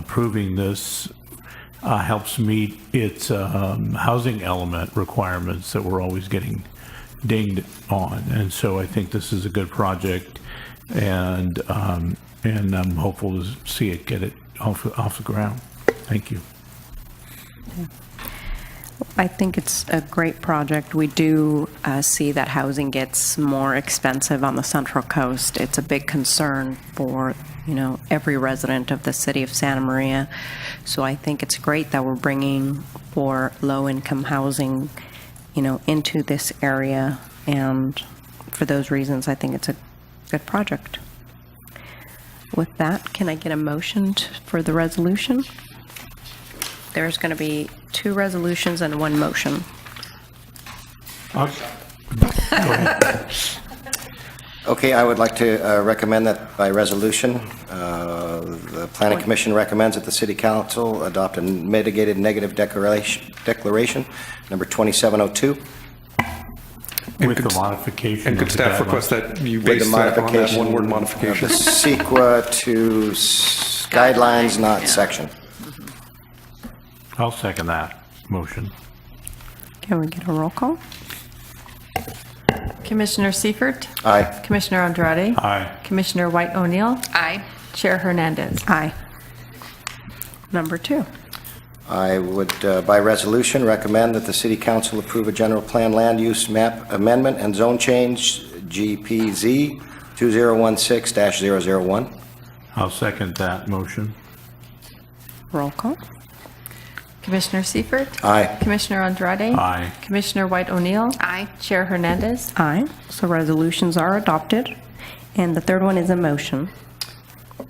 approving this uh, helps meet its um, housing element requirements that we're always getting dinged on. And so I think this is a good project, and, um, and I'm hopeful to see it get it off, off the ground. Thank you. I think it's a great project. We do uh, see that housing gets more expensive on the Central Coast. It's a big concern for, you know, every resident of the city of Santa Maria. So I think it's great that we're bringing for low-income housing, you know, into this area. And for those reasons, I think it's a good project. With that, can I get a motion t- for the resolution? There's going to be two resolutions and one motion. I'll- Okay, I would like to uh, recommend that by resolution, uh, the Planning Commission recommends that the City Council adopt a mitigated negative declaration, declaration number 2702, With could- the modification. And of could the staff guidelines. request that you with base the that on that modification... of one-word the modification? CEQA to s- guidelines, not section. I'll second that motion. Can we get a roll call? Commissioner Seifert? Aye. Commissioner Andrade? Aye. Commissioner White O'Neill? Aye. Chair Hernandez? Aye. Number two. I would, uh, by resolution, recommend that the City Council approve a general plan land use map amendment and zone change, GPZ 2016-001. I'll second that motion. Roll call. Commissioner Seifert? Aye. Commissioner Andrade? Aye. Commissioner White O'Neill? Aye. Chair Hernandez? Aye. So resolutions are adopted. And the third one is a motion.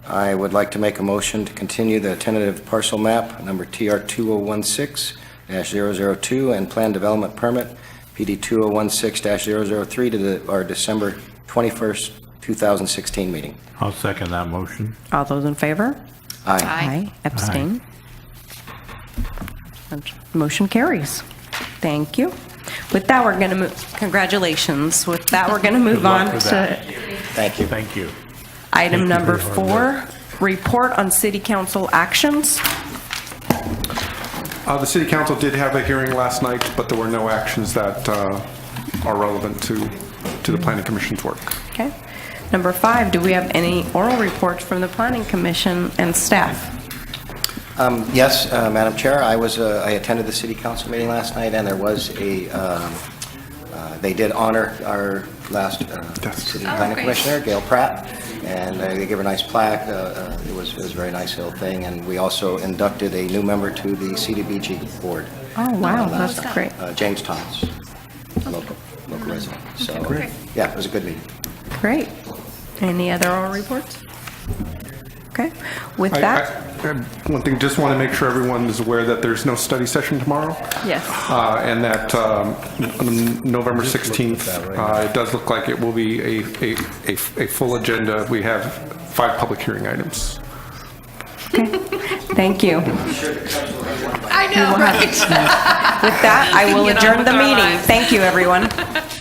I would like to make a motion to continue the tentative parcel map, number TR 2016-002, and plan development permit, PD 2016-003, to the- our December 21st, 2016 meeting. I'll second that motion. All those in favor? Aye. Abstain? Motion carries. Thank you. With that, we're going to move, congratulations. With that, we're going to move luck on with to that. Thank you. Thank you. item number Thank you for your four, report on city council actions. Uh, The city council did have a hearing last night, but there were no actions that uh, are relevant to, to the planning commission's work. Okay. Number five, do we have any oral reports from the planning commission and staff? Um, Yes, uh, Madam Chair, I was, uh, I attended the city council meeting last night, and there was a, um, uh, they did honor our last uh, That's- Oh, city planning commissioner, Gail Pratt, and uh, they gave her a nice plaque. Uh, uh, It was, it was a very nice little thing, and we also inducted a new member to the CDBG board. Oh, wow, uh, last that's night, great. Oh, uh, James Thomas, local, local resident. So, yeah, it was a good meeting. Great. Any other oral reports? Okay. With I- that, I- I- One thing, just want to make sure everyone is aware that there's no study session tomorrow. Yes. Uh, And that um, n- November 16th, uh, it does look like it will be a, a, a a full agenda. We have five public hearing items. thank you. I know, right? With that, I will get on adjourn with the our meeting. lives. Thank you, everyone.